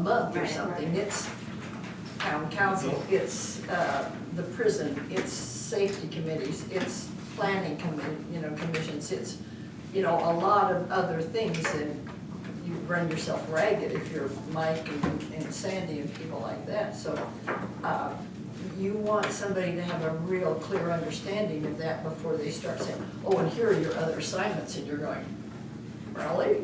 month or Right, something, right. it's town council, it's, uh, the prison, it's safety committees, it's planning commi, you know, commissions, it's, you know, a lot of other things, and you run yourself ragged if you're Mike and and Sandy and people like that, so, uh, you want somebody to have a real clear understanding of that before they start saying, oh, and here are your other assignments, and you're going, really?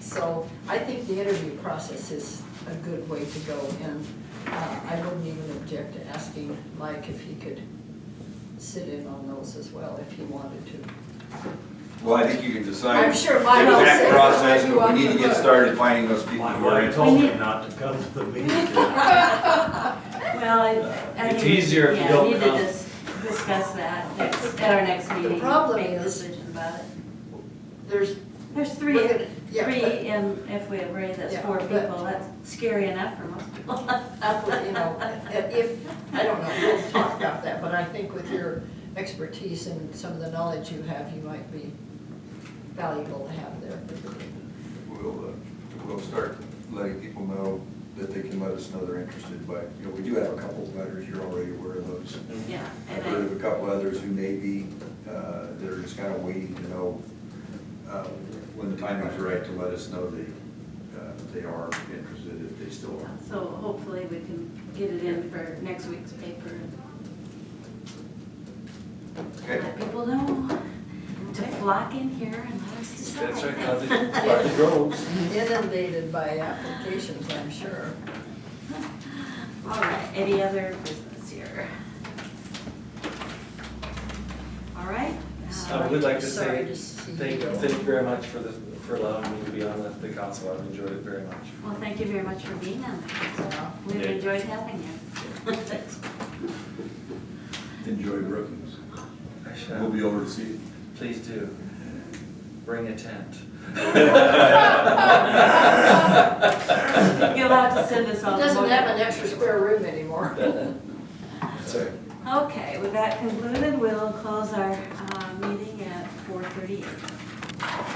So I think the interview process is a good way to go, and uh, I wouldn't even object to asking Mike if he could sit in on those as well, if he wanted to. Well, I think you can decide. I'm sure Mike will say- Exact process, Mike, but you we need want to the get book. started finding those people My who are wife interested. told me not to come to the meeting. Well, it- I It's think- easier if you yeah, don't We need come. to dis- discuss that next, at our next meeting. problem Make a is- decision about it. There's, There's Look three, at it. Yeah, three, and if we agree that's Yeah, four but- people, that's scary enough for most people. you know, if, I don't know, we'll talk about that, but I think with your expertise and some of the knowledge you have, you might be valuable to have there. We'll, uh, we'll start letting people know that they can let us know they're interested, but, you know, we do have a couple of letters, you're already aware of those. Yeah, I've heard and of a couple others who may be, uh, that are just kind of waiting to know, uh, when the time is right to let us know they, uh, they are interested, if they still I, are. so hopefully we can get it in for next week's paper and Okay? let people know to flock in here and let us decide. That's right, how the, how it goes. Inundated by applications, I'm sure. All right, any other business here? All right. I uh, would like to Sorry say, to see thank, you go. thank you very much for the, for allowing me to be on the, the council, I've enjoyed it very much. Well, thank you very much for being on. Yeah. We've Yeah. enjoyed having you. Enjoy Brookings. I We'll shall, be over to see you. please do, bring a tent. You're allowed to send us all. He the doesn't more- have an extra square room anymore. Sorry. Okay, with that concluded, we'll close our uh, meeting at four thirty-eight.